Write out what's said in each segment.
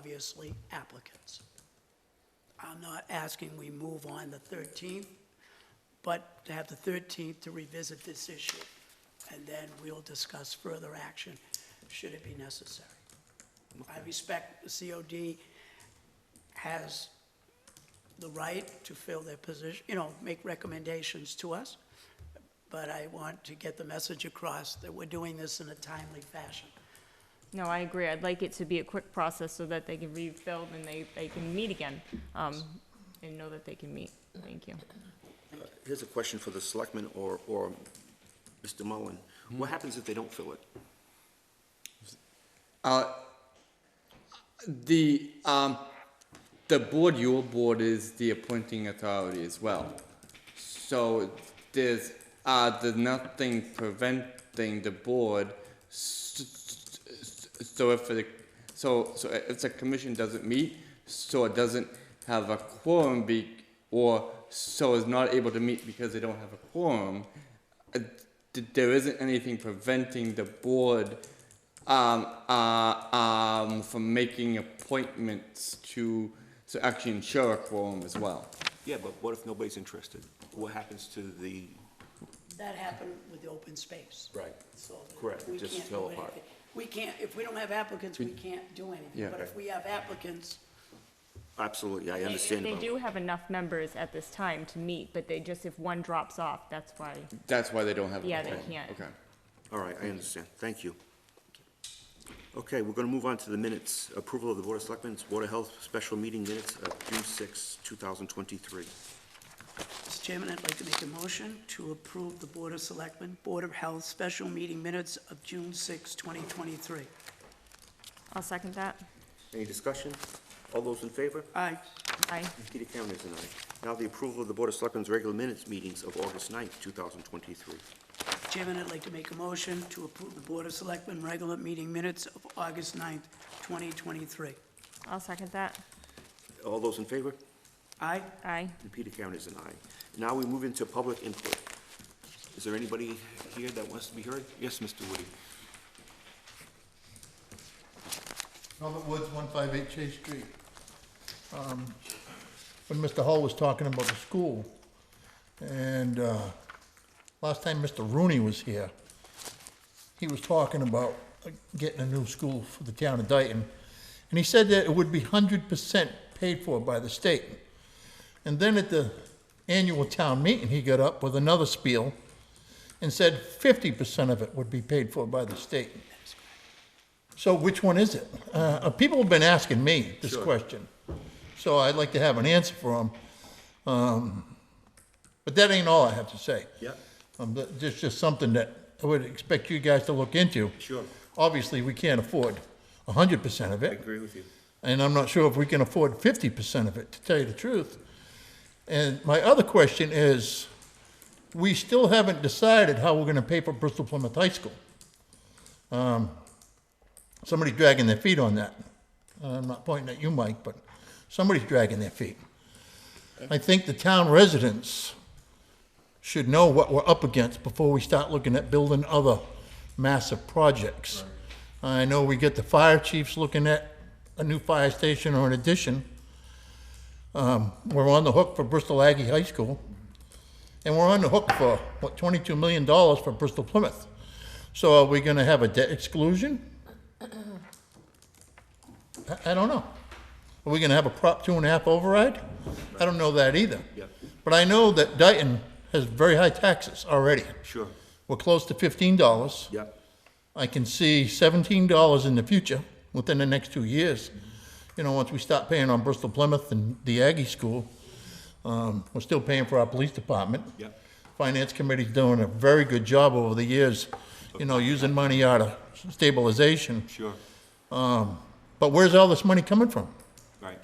obviously applicants. I'm not asking we move on the 13th, but to have the 13th to revisit this issue, and then we'll discuss further action, should it be necessary. I respect the COD has the right to fill their position, you know, make recommendations to us, but I want to get the message across that we're doing this in a timely fashion. No, I agree. I'd like it to be a quick process so that they can rebuild and they, they can meet again, um, and know that they can meet. Thank you. Here's a question for the selectman or, or Mr. Mullen. What happens if they don't fill it? The, um, the board, your board is the appointing authority as well. So there's, uh, there's nothing preventing the board. s- s- s- So if the, so, so if the commission doesn't meet, so it doesn't have a quorum be, or so is not able to meet because they don't have a quorum, uh, th- there isn't anything preventing the board um, uh, um, from making appointments to, so actually ensure a quorum as well. Yeah, but what if nobody's interested? What happens to the? That happened with the open space. Right. So that Correct, we just can't fell do apart. anything. We can't, if we don't have applicants, we can't do anything. Yeah. But if we have applicants, Absolutely, I understand They about. do have enough members at this time to meet, but they just, if one drops off, that's why. That's why they don't have. a Yeah, they quorum. can't. Okay. All right, I understand. Thank you. Okay, we're gonna move on to the minutes. Approval of the Board of Selectmen's Water Health Special Meeting Minutes of June 6, 2023. Mr. Chairman, I'd like to make a motion to approve the Board of Selectmen, Board of Health Special Meeting Minutes of June 6, 2023. I'll second that. Any discussion? All those in favor? Aye. Aye. Peter Cameron is an aye. Now the approval of the Board of Selectmen's regular minutes meetings of August 9, 2023. Chairman, I'd like to make a motion to approve the Board of Selectmen regular meeting minutes of August 9th, 2023. I'll second that. All those in favor? Aye? Aye. And Peter Karen is an aye. Now we move into public input. Is there anybody here that wants to be heard? Yes, Mr. Woody. Robert Woods, 158 Chase Street. Um, When Mr. Hall was talking about the school, and uh, last time Mr. Rooney was here, he was talking about uh, getting a new school for the town of Dayton, and he said that it would be 100% paid for by the state. And then at the annual town meeting, he got up with another spiel and said 50% of it would be paid for by the state. So which one is it? Uh, uh, people have been asking me this question, so I'd like to have an answer for them. Um, but that ain't all I have to say. Yeah. Um, but just just something that I would expect you guys to look into. Sure. Obviously, we can't afford 100% of I it, agree with you. and I'm not sure if we can afford 50% of it, to tell you the truth. And my other question is, we still haven't decided how we're going to pay for Bristol Plymouth High School. Um, Somebody's dragging their feet on that. Uh, I'm not pointing at you, Mike, but somebody's dragging their feet. I think the town residents should know what we're up against before we start looking at building other massive projects. I know we get the fire chiefs looking at a new fire station or an addition. Um, we're on the hook for Bristol Aggie High School. And we're on the hook for, what, twenty-two million dollars for Bristol Plymouth. So are we gonna have a debt exclusion? I, I don't know. Are we gonna have a Prop two and a half override? I don't know that either. Yep. But I know that Dayton has very high taxes already. Sure. We're close to fifteen dollars. Yeah. I can see seventeen dollars in the future, within the next two years. You know, once we stop paying on Bristol Plymouth and the Aggie School, um, we're still paying for our police department. Yeah. Finance committee's doing a very good job over the years, you know, using money out of stabilization. Sure. But where's all this money coming from? Right.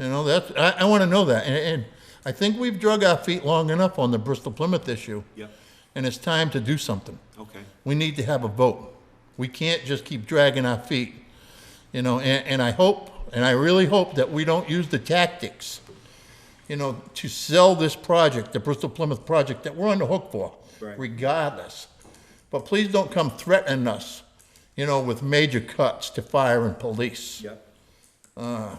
You know, that's, I, I wanna know that, and, and I think we've drug our feet long enough on the Bristol Plymouth issue. Yep. And it's time to do something. Okay. We need to have a vote. We can't just keep dragging our feet, you know, and, and I hope, and I really hope that we don't use the tactics, you know, to sell this project, the Bristol Plymouth project that we're on the hook for, Right. regardless. But please don't come threatening us, you know, with major cuts to fire and police. Yep. uh,